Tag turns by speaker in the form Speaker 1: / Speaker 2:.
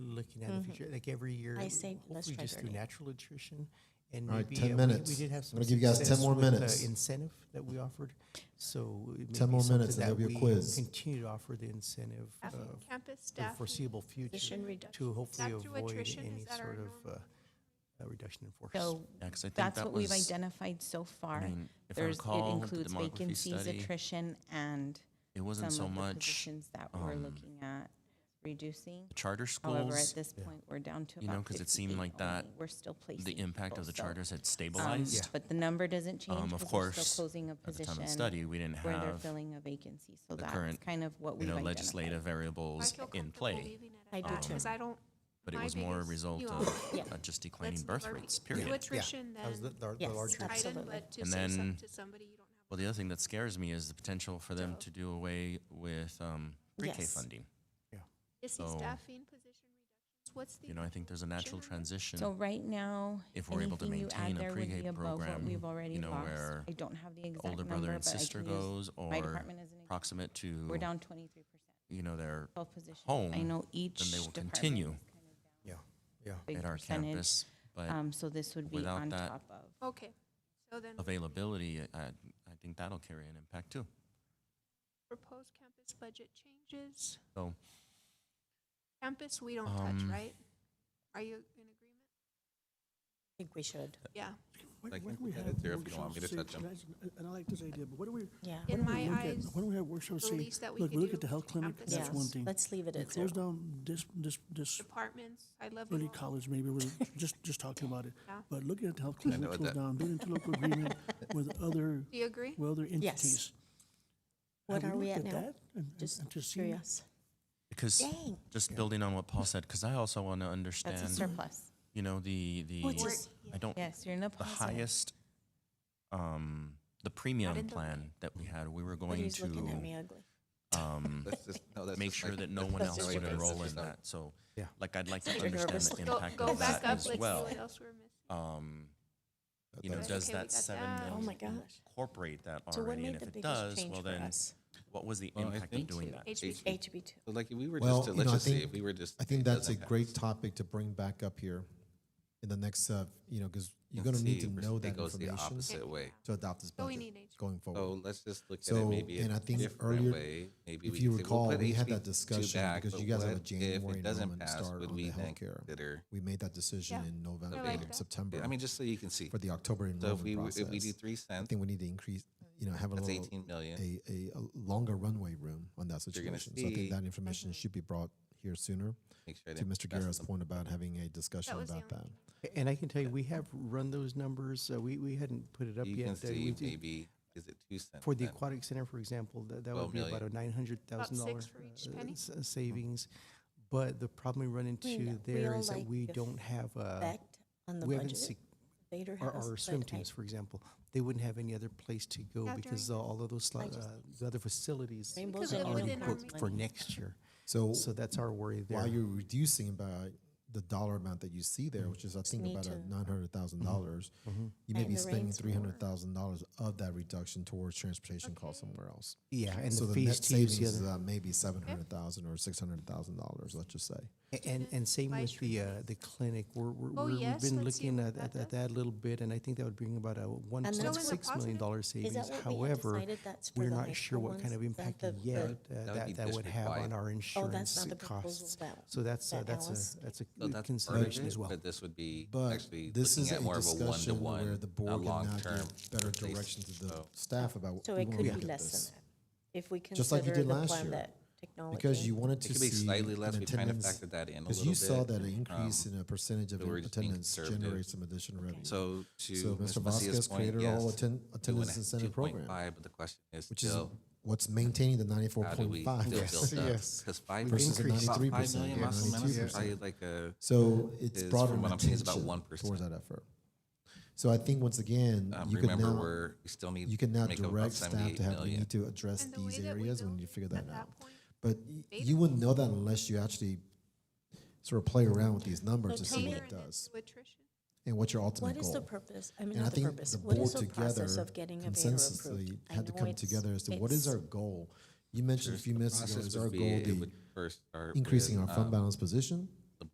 Speaker 1: looking at in the
Speaker 2: Mm-hmm.
Speaker 1: future, like every year.
Speaker 3: I say let's
Speaker 1: hopefully
Speaker 3: try
Speaker 1: just through
Speaker 3: 30.
Speaker 1: natural attrition. And
Speaker 4: All right,
Speaker 1: maybe
Speaker 4: 10
Speaker 1: uh, we-
Speaker 4: minutes.
Speaker 1: We did
Speaker 4: I'm
Speaker 1: have some.
Speaker 4: gonna give you guys 10
Speaker 1: success
Speaker 4: more
Speaker 1: with the
Speaker 4: minutes.
Speaker 1: Incentive that we offered, so. it may
Speaker 4: 10
Speaker 1: be
Speaker 4: more
Speaker 1: something
Speaker 4: minutes and
Speaker 1: that
Speaker 4: there'll be a
Speaker 1: we
Speaker 4: quiz.
Speaker 1: Continue to offer the incentive uh,
Speaker 5: Staff- Campus
Speaker 1: for the
Speaker 5: staff.
Speaker 1: foreseeable
Speaker 3: Position
Speaker 1: future
Speaker 3: reduction.
Speaker 1: to hopefully
Speaker 5: Is that through
Speaker 1: avoid
Speaker 5: attrition?
Speaker 1: any
Speaker 5: Is that our
Speaker 1: sort of uh,
Speaker 5: norm?
Speaker 1: uh, reduction in force.
Speaker 2: So
Speaker 6: Yeah, 'cause I think
Speaker 2: that's
Speaker 6: that
Speaker 2: what we've
Speaker 6: was-
Speaker 2: identified so far.
Speaker 6: mean, if I
Speaker 2: There's, it
Speaker 6: recall, the
Speaker 2: includes
Speaker 6: demography
Speaker 2: vacancies,
Speaker 6: study,
Speaker 2: attrition, and
Speaker 6: It
Speaker 2: some
Speaker 6: wasn't so
Speaker 2: of the
Speaker 6: much
Speaker 2: positions that we're
Speaker 6: um,
Speaker 2: looking at reducing.
Speaker 6: the charter
Speaker 2: However, at
Speaker 6: schools.
Speaker 2: this point, we're down to
Speaker 6: you know,
Speaker 2: about
Speaker 6: 'cause it seemed
Speaker 2: 58
Speaker 6: like that-
Speaker 2: only. We're still placing.
Speaker 6: The impact
Speaker 2: people,
Speaker 6: of the
Speaker 2: so,
Speaker 6: charters had
Speaker 2: um,
Speaker 6: stabilized.
Speaker 2: But the number doesn't change
Speaker 6: Um, of
Speaker 2: because we're
Speaker 6: course,
Speaker 2: still closing a
Speaker 6: At the time
Speaker 2: position
Speaker 6: of study, we didn't
Speaker 2: where they're
Speaker 6: have
Speaker 2: filling a vacancy. So
Speaker 6: the
Speaker 2: that's
Speaker 6: current,
Speaker 2: kind of what
Speaker 6: you
Speaker 2: we've
Speaker 6: know
Speaker 2: identified.
Speaker 6: legislative
Speaker 5: I
Speaker 6: variables
Speaker 5: feel
Speaker 6: in
Speaker 5: comfortable
Speaker 6: play,
Speaker 5: leaving it
Speaker 3: I
Speaker 5: at
Speaker 3: do
Speaker 5: that,
Speaker 3: too.
Speaker 5: Because I don't.
Speaker 6: but it
Speaker 5: my
Speaker 6: was more a
Speaker 5: biggest-
Speaker 6: result
Speaker 5: you all-
Speaker 6: of
Speaker 2: Yeah.
Speaker 6: uh, just declining
Speaker 5: let's
Speaker 6: birth
Speaker 5: lower it.
Speaker 6: rates. Period.
Speaker 5: Do attrition
Speaker 1: That was the-
Speaker 5: then.
Speaker 1: the- the
Speaker 2: Yes,
Speaker 1: larger-
Speaker 2: that's-
Speaker 5: Tighten,
Speaker 2: Absolutely.
Speaker 5: but to
Speaker 6: And
Speaker 5: say something
Speaker 6: then-
Speaker 5: to somebody you don't have.
Speaker 6: Well, the other thing that scares me is the potential for them to do away with um, pre-K
Speaker 2: Yes.
Speaker 6: funding.
Speaker 5: Is the
Speaker 6: So-
Speaker 5: staffing position reductions? What's the?
Speaker 6: You know, I think there's a natural
Speaker 5: Sure.
Speaker 6: transition.
Speaker 2: So right now,
Speaker 6: If we're able to
Speaker 2: anything you
Speaker 6: maintain
Speaker 2: add
Speaker 6: a
Speaker 2: there would
Speaker 6: pre-K
Speaker 2: be above what
Speaker 6: program,
Speaker 2: we've already
Speaker 6: you know,
Speaker 2: lost.
Speaker 6: where
Speaker 2: I don't have the exact
Speaker 6: older
Speaker 2: number,
Speaker 6: brother and
Speaker 2: but I
Speaker 6: sister
Speaker 2: can use
Speaker 6: goes
Speaker 2: my
Speaker 6: or
Speaker 2: department as an example.
Speaker 6: proximate to,
Speaker 2: We're down twenty-three percent,
Speaker 6: you know, their,
Speaker 2: twelve positions. I
Speaker 6: home,
Speaker 2: know each
Speaker 6: then they will
Speaker 2: department is
Speaker 6: continue
Speaker 2: kind
Speaker 1: Yeah, yeah.
Speaker 2: of big
Speaker 6: at our
Speaker 2: percentage.
Speaker 6: campus. But
Speaker 2: Um, so this would be
Speaker 6: without
Speaker 2: on
Speaker 6: that-
Speaker 2: top of.
Speaker 5: Okay, so then
Speaker 6: availability, I, I think that'll carry an impact too.
Speaker 5: proposed campus budget changes,
Speaker 6: So
Speaker 5: campus we don't touch,
Speaker 6: Um,
Speaker 5: right? Are you in agreement?
Speaker 3: think we should.
Speaker 5: Yeah,
Speaker 7: I
Speaker 1: What-
Speaker 7: think
Speaker 1: what do
Speaker 7: we
Speaker 1: have
Speaker 7: had it there if you don't
Speaker 1: workshops
Speaker 7: want me to
Speaker 1: say-
Speaker 7: touch 'em.
Speaker 1: and I s- And I like this idea, but what do we,
Speaker 3: Yeah.
Speaker 1: what
Speaker 5: in
Speaker 1: do we
Speaker 5: my
Speaker 1: look at,
Speaker 5: eyes,
Speaker 1: why do we have workshops
Speaker 5: the
Speaker 1: say,
Speaker 5: least that we
Speaker 7: look,
Speaker 5: could
Speaker 7: we look at
Speaker 5: do
Speaker 7: the health clinic,
Speaker 5: campus
Speaker 7: that's
Speaker 3: is-
Speaker 7: one thing.
Speaker 3: Let's leave it
Speaker 7: We
Speaker 3: at zero.
Speaker 7: close down this, this, this
Speaker 5: departments, I love you
Speaker 7: early
Speaker 5: all.
Speaker 7: college, maybe we're just, just talking about it.
Speaker 5: Yeah.
Speaker 7: But looking at the health clinic,
Speaker 1: know
Speaker 7: we
Speaker 1: what
Speaker 7: close
Speaker 1: that-
Speaker 7: down, being into local agreement with other,
Speaker 5: Do you agree?
Speaker 7: with other entities.
Speaker 3: What
Speaker 7: Have
Speaker 3: are we
Speaker 7: looked
Speaker 3: at now?
Speaker 7: that and- and-
Speaker 3: Just
Speaker 7: and to see-
Speaker 3: curious.
Speaker 6: because
Speaker 3: Dang.
Speaker 6: just building on what Paul said, because I also want to
Speaker 2: That's a
Speaker 6: understand,
Speaker 2: surplus.
Speaker 6: you know, the, the,
Speaker 3: Oh, it's just-
Speaker 6: I don't,
Speaker 2: Yes, you're in a
Speaker 6: the
Speaker 2: positive.
Speaker 6: highest, um, the premium
Speaker 5: in the
Speaker 6: plan that we had, we were going
Speaker 3: He's
Speaker 6: to,
Speaker 3: looking at me ugly.
Speaker 6: um,
Speaker 8: That's just, no, that's
Speaker 6: make
Speaker 8: just
Speaker 6: sure
Speaker 8: like-
Speaker 6: that no one
Speaker 8: that's
Speaker 6: else
Speaker 8: just
Speaker 6: would
Speaker 8: like- that's
Speaker 6: enroll in
Speaker 8: just not-
Speaker 6: that. So,
Speaker 1: Yeah.
Speaker 6: like, I'd like to
Speaker 3: You're
Speaker 6: understand
Speaker 3: nervous.
Speaker 6: the
Speaker 5: Go,
Speaker 6: impact
Speaker 5: go
Speaker 6: of
Speaker 5: back up,
Speaker 6: that
Speaker 5: let's
Speaker 6: as
Speaker 5: see
Speaker 6: well.
Speaker 5: what else we're missing.
Speaker 6: Um, you
Speaker 8: that-
Speaker 6: know,
Speaker 8: that's-
Speaker 6: does
Speaker 5: Okay, we
Speaker 6: that
Speaker 5: got
Speaker 6: seven
Speaker 5: that.
Speaker 6: million
Speaker 3: Oh my gosh.
Speaker 6: incorporate that
Speaker 3: So what
Speaker 6: already?
Speaker 3: made
Speaker 6: And if
Speaker 3: the
Speaker 6: it
Speaker 3: biggest
Speaker 6: does,
Speaker 3: change
Speaker 6: well
Speaker 3: for
Speaker 6: then,
Speaker 3: us?
Speaker 6: what was the
Speaker 8: Well, I
Speaker 6: impact of
Speaker 8: think-
Speaker 6: doing that?
Speaker 5: HB
Speaker 3: HB two.
Speaker 8: Like, if we were
Speaker 4: Well,
Speaker 8: just to,
Speaker 4: you
Speaker 8: let's
Speaker 4: know, I
Speaker 8: just say,
Speaker 4: think-
Speaker 8: if we were just.
Speaker 4: I think
Speaker 8: does
Speaker 4: that's a
Speaker 8: impact.
Speaker 4: great topic to bring back up here in the next, uh, you know, because you're
Speaker 8: Let's
Speaker 4: going to need
Speaker 8: see,
Speaker 4: to
Speaker 8: we're-
Speaker 4: know
Speaker 8: it
Speaker 4: that
Speaker 8: goes the
Speaker 4: information
Speaker 8: opposite Oh. way.
Speaker 4: to adopt this
Speaker 5: So we
Speaker 4: budget
Speaker 5: need HB.
Speaker 4: going forward.
Speaker 8: So let's just look at
Speaker 4: So,
Speaker 8: it maybe
Speaker 4: and
Speaker 8: in
Speaker 4: I
Speaker 8: a
Speaker 4: think
Speaker 8: different
Speaker 4: earlier,
Speaker 8: way. Maybe
Speaker 4: if
Speaker 8: we
Speaker 4: you
Speaker 8: can say, we'll
Speaker 4: recall,
Speaker 8: put
Speaker 4: we had that
Speaker 8: HB2
Speaker 4: discussion
Speaker 8: back,
Speaker 4: because
Speaker 8: but
Speaker 4: you guys have a
Speaker 8: what if it
Speaker 4: January
Speaker 8: doesn't
Speaker 4: enrollment
Speaker 8: pass?
Speaker 4: start
Speaker 8: Would
Speaker 4: on
Speaker 8: we
Speaker 4: the
Speaker 8: then
Speaker 4: healthcare.
Speaker 8: consider-
Speaker 4: We made that decision
Speaker 5: Yeah,
Speaker 4: in November,
Speaker 5: like
Speaker 4: um,
Speaker 5: that.
Speaker 4: September.
Speaker 8: I mean, just so you can see.
Speaker 4: for the October
Speaker 8: So if
Speaker 4: enrollment
Speaker 8: we, were-
Speaker 4: process.
Speaker 8: if we do three
Speaker 4: I
Speaker 8: cents,
Speaker 4: think we need to increase, you know, have a
Speaker 8: that's
Speaker 4: little,
Speaker 8: eighteen million.
Speaker 4: a, a, a longer runway room on that
Speaker 8: You're gonna
Speaker 4: situation. So I think
Speaker 8: see-
Speaker 4: that information
Speaker 5: Mm-hmm.
Speaker 4: should be brought here sooner.
Speaker 8: Make sure I
Speaker 4: To
Speaker 8: didn't
Speaker 4: Mr.
Speaker 8: pass
Speaker 4: Guerra's
Speaker 8: them.
Speaker 4: point about having a discussion
Speaker 5: was the
Speaker 4: about that.
Speaker 5: only
Speaker 1: And I can tell you, we have run those numbers. Uh, we, we hadn't put it up
Speaker 8: You
Speaker 1: yet.
Speaker 8: can
Speaker 1: Uh, we
Speaker 8: see
Speaker 1: did-
Speaker 8: maybe, is it two cents?
Speaker 1: For the
Speaker 8: then?
Speaker 1: aquatic center, for example, that, that would
Speaker 8: 12
Speaker 1: be about a nine hundred thousand dollar uh,
Speaker 5: six for each penny.
Speaker 1: savings. But the problem we run into
Speaker 3: know, we
Speaker 1: there
Speaker 3: all
Speaker 1: is that
Speaker 3: like
Speaker 1: we
Speaker 3: the
Speaker 1: don't have a,
Speaker 3: Effect on the
Speaker 1: we haven't,
Speaker 3: budget.
Speaker 1: sec-
Speaker 3: Later
Speaker 1: our,
Speaker 3: has,
Speaker 1: our
Speaker 3: but
Speaker 1: swim
Speaker 3: I-
Speaker 1: teams, for example, they wouldn't have any other place to go
Speaker 5: Yeah,
Speaker 1: because
Speaker 5: during-
Speaker 1: all of those, sli-
Speaker 3: I just-
Speaker 1: uh, the other facilities are
Speaker 3: Rainbows
Speaker 5: Because
Speaker 3: and
Speaker 5: it was
Speaker 1: already
Speaker 5: within our
Speaker 3: unicorns
Speaker 1: booked for
Speaker 3: money.
Speaker 1: next year.
Speaker 4: So
Speaker 1: So that's our worry there.
Speaker 4: while you're reducing by the dollar amount that you see there, which is I think
Speaker 3: Mm-hmm. need
Speaker 4: about
Speaker 3: to-
Speaker 4: a nine hundred thousand dollars, you may
Speaker 3: Tighten
Speaker 4: be
Speaker 3: the
Speaker 4: spending
Speaker 3: reins
Speaker 4: three hundred thousand dollars of that reduction towards transportation costs somewhere else.
Speaker 1: Yeah, and
Speaker 4: so
Speaker 1: the fees
Speaker 4: the, net
Speaker 1: to use
Speaker 4: savings
Speaker 1: the
Speaker 4: is
Speaker 1: other.
Speaker 4: uh, maybe seven hundred thousand or six hundred thousand dollars. Let's just say.
Speaker 1: A- And, and same with
Speaker 5: advisory
Speaker 1: the, uh, the clinic, we're, we're,
Speaker 5: Oh,
Speaker 1: we're- we've
Speaker 5: yes,
Speaker 1: been
Speaker 5: let's see
Speaker 1: looking
Speaker 5: what
Speaker 1: at, at
Speaker 5: that
Speaker 1: at that a little bit, and I think that would bring about a one
Speaker 3: that's
Speaker 1: point
Speaker 3: what-
Speaker 1: six million dollar savings.
Speaker 3: Is that what we had
Speaker 1: However,
Speaker 3: decided that's for
Speaker 1: we're
Speaker 3: the
Speaker 1: not
Speaker 3: high
Speaker 1: sure
Speaker 3: school
Speaker 1: what kind
Speaker 3: ones?
Speaker 1: of
Speaker 3: That
Speaker 1: impact
Speaker 3: the-
Speaker 1: yet
Speaker 3: the-
Speaker 1: uh,
Speaker 8: would be
Speaker 1: that, that would have on
Speaker 8: district-wide.
Speaker 1: our
Speaker 3: Oh, that's
Speaker 1: insurance
Speaker 3: not the proposal
Speaker 1: costs.
Speaker 3: that.
Speaker 1: So that's, uh,
Speaker 3: that
Speaker 1: that's
Speaker 3: Alice
Speaker 1: a, that's
Speaker 8: So
Speaker 1: a
Speaker 8: that's
Speaker 1: consideration
Speaker 8: part of
Speaker 1: as
Speaker 8: it,
Speaker 1: well.
Speaker 8: But this would be
Speaker 4: But
Speaker 8: actually
Speaker 4: this
Speaker 8: looking
Speaker 4: is a
Speaker 8: at more of a
Speaker 4: discussion where
Speaker 8: one-to-one,
Speaker 4: the
Speaker 8: a
Speaker 4: board can now
Speaker 8: long-term.
Speaker 4: give better
Speaker 8: replacement.
Speaker 4: direction to the
Speaker 8: So-
Speaker 4: staff about. what
Speaker 3: So
Speaker 4: we
Speaker 3: it
Speaker 4: wanna
Speaker 3: could
Speaker 4: look
Speaker 3: be
Speaker 4: at
Speaker 3: less
Speaker 4: this.
Speaker 3: than that. If we
Speaker 4: Just like you
Speaker 3: consider
Speaker 4: did
Speaker 3: the
Speaker 4: last
Speaker 3: plan
Speaker 4: year.
Speaker 3: that technology.
Speaker 4: Because you wanted
Speaker 8: It
Speaker 4: to
Speaker 8: could be
Speaker 4: see
Speaker 8: slightly less.
Speaker 4: an
Speaker 8: We kind of
Speaker 4: attendance-
Speaker 8: factored that in a
Speaker 4: Because
Speaker 8: little
Speaker 4: you saw
Speaker 8: bit. Um,
Speaker 4: that an increase in a percentage of
Speaker 8: but we're just being
Speaker 4: attendance
Speaker 8: conservative.
Speaker 4: generates some additional revenue.
Speaker 8: So
Speaker 4: So
Speaker 8: to Ms.
Speaker 4: Mr.
Speaker 8: Macia's
Speaker 4: Vasquez
Speaker 8: point,
Speaker 4: created a whole
Speaker 8: yes.
Speaker 4: atten- attendance incentive program,
Speaker 8: 2.5, but the question is
Speaker 4: which is
Speaker 8: still,
Speaker 4: what's maintaining the ninety-four
Speaker 8: how do we
Speaker 4: point
Speaker 8: still
Speaker 4: five.
Speaker 8: build up?
Speaker 1: yes.
Speaker 8: Because five
Speaker 1: We've
Speaker 8: versus
Speaker 1: increased
Speaker 8: about
Speaker 4: 93%,
Speaker 8: five million
Speaker 4: yeah,
Speaker 8: muscle memory is
Speaker 4: 92%.
Speaker 8: probably like a,
Speaker 4: So it's
Speaker 8: is,
Speaker 4: brought
Speaker 8: from
Speaker 4: an
Speaker 8: what I'm seeing, is about
Speaker 4: attention
Speaker 8: 1%.
Speaker 4: towards that effort. So I think once again,
Speaker 8: um,
Speaker 4: you could
Speaker 8: remember,
Speaker 4: now,
Speaker 8: we're, we still need
Speaker 4: you
Speaker 8: to
Speaker 4: can now
Speaker 8: make up about
Speaker 4: direct staff
Speaker 8: 78
Speaker 4: to have, we
Speaker 8: million.
Speaker 4: need to address
Speaker 5: And the way
Speaker 4: these
Speaker 5: that we
Speaker 4: areas
Speaker 5: built
Speaker 4: when you
Speaker 5: it
Speaker 4: figure that
Speaker 5: at
Speaker 4: out.
Speaker 5: that point,
Speaker 4: But y- you wouldn't know that unless you actually sort of play around with these numbers to
Speaker 3: So
Speaker 4: see
Speaker 3: tell
Speaker 4: what
Speaker 3: me-
Speaker 4: it does
Speaker 5: to attrition.
Speaker 4: and what your ultimate
Speaker 3: What
Speaker 4: goal.
Speaker 3: is the purpose? I mean,
Speaker 4: And I
Speaker 3: not the
Speaker 4: think
Speaker 3: purpose.
Speaker 4: the
Speaker 3: What
Speaker 4: board
Speaker 3: is the
Speaker 4: together
Speaker 3: process of getting a Vader approved?
Speaker 4: consensually
Speaker 3: I
Speaker 4: had to
Speaker 3: know
Speaker 4: come
Speaker 3: it's-
Speaker 4: together as to what is
Speaker 3: it's-
Speaker 4: our goal? You mentioned a few minutes ago,
Speaker 8: Process
Speaker 4: is
Speaker 8: would
Speaker 4: our
Speaker 8: be,
Speaker 4: goal
Speaker 8: it
Speaker 4: the
Speaker 8: would first start
Speaker 4: increasing
Speaker 8: with,
Speaker 4: our fund
Speaker 8: um,
Speaker 4: balance position?